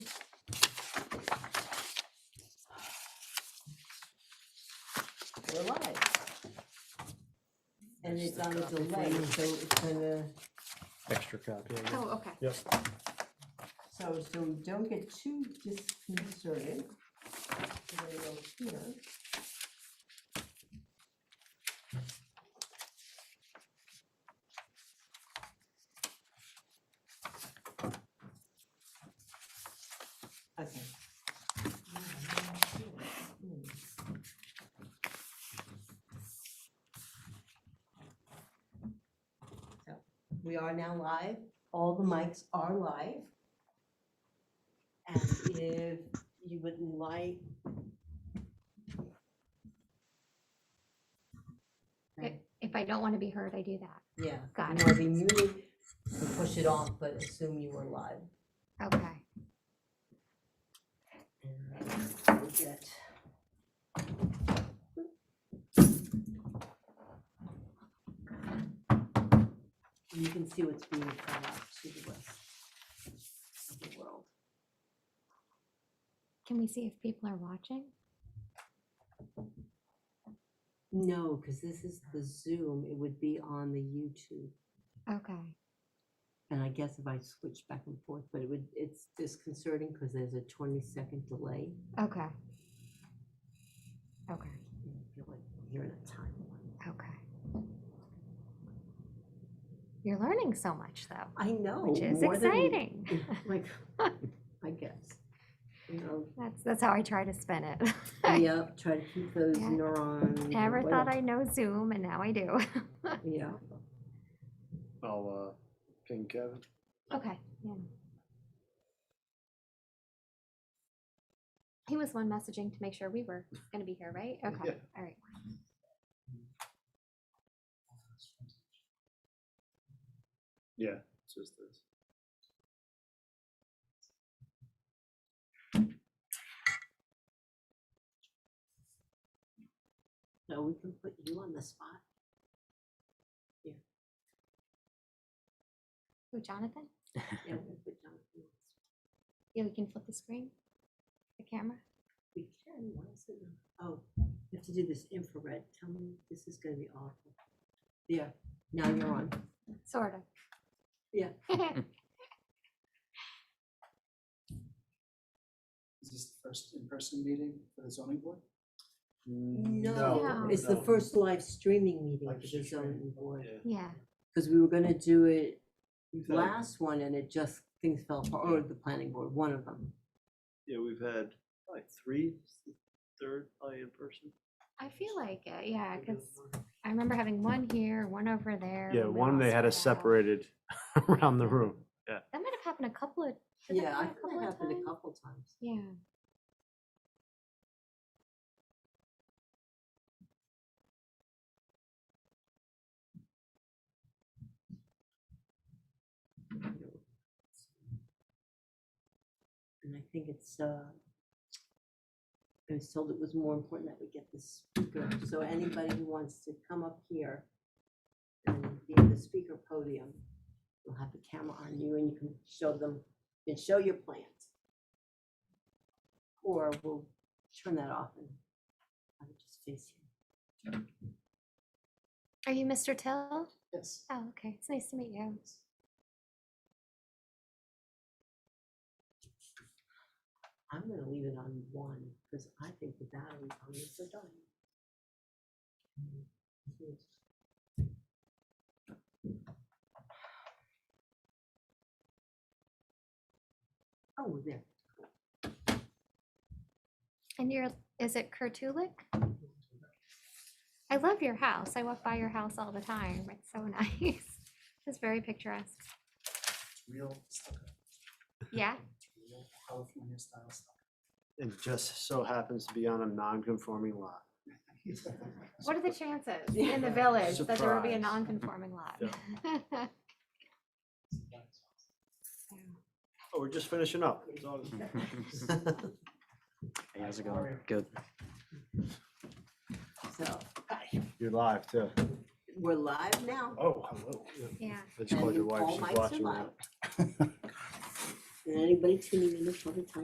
July. And it's on a delay, so it's gonna, Extra copy. I guess. Oh, okay. so, so don't get too disconcerted. We're gonna go here. Okay. Hmm. So, We are now live, all the mics are live. And if you would like. Okay. If I don't want to be heard, I do that. Yeah. Got You want to be muted, so push it off, but assume you were live. Okay. We'll get- You can see what's being thrown out to the west of the world. Can we see if people are watching? No, because this is the Zoom, it would be on the YouTube. Okay. And I guess if I switch back and forth, but it would, it's disconcerting because there's a twenty second delay. Okay. Okay. and I feel like You're in a timeline. Okay. You're learning so much though, I know. which is Oh, more than- exciting. Like, I guess. You know, That's that's how I try to spin it. I yep, try to keep those Yeah. neurons. never thought awake. I know Zoom and now I do. Yeah, I'll, uh, ping Kevin. Okay, yeah. He was the one messaging to make sure we were gonna be here, right? Okay, all right. Yeah, it's just this. so we can put you on the spot. Who, Jonathan? Yeah, we can put Jonathan on the spot. Yeah, we can flip the screen, the camera. We can, why is it not- Oh, we have to do this infrared. Tell me, this is gonna be awful. Yeah, now you're on. Sort of. Yeah. Is this the first in-person meeting for the zoning board? Mm, No, it's the no. first live streaming meeting Live for the zoning streaming. board, Yeah. Yeah, because we were gonna do it We've had- last one and it just, things fell apart, or the planning board, one of them. Yeah, we've had like three, third, probably in person. I feel like it, yeah, maybe because it was more. I remember having one here, one over there. Yeah, when we one all they had us spread out. separated around the room. That might have happened a couple of. did that Yeah, I happen think that of happened times? a couple times. Yeah. And I think it's, uh, I was told it was more important that we get the speaker, so anybody who wants to come up here and be at the speaker podium, you'll have the camera on you and you can show them, you can show your plans. Or we'll turn that off and have it just face you. Are you Mr. Till? Yes. Oh, okay. It's nice to meet you. I'm gonna leave it on one, because I think the batteries on this are dying. Oh, there, And you're, is it Kurtulik? I love your house. I walk by your house all the time. It's so nice. It's very picturesque. It's Real stucco, Yeah. real California style stucco. It just so happens to be on a non-conforming lot. What are the chances in the Yeah. village that there would be a Surprise. non-conforming lot? Oh, we're just finishing up. It's all- Hey, how's it How are going? Good. so, You're live too. we're live now. Oh, hello. Yeah. Yeah. I just and called your all wife. mics She's are watching. live. now. And anybody tuning in this other time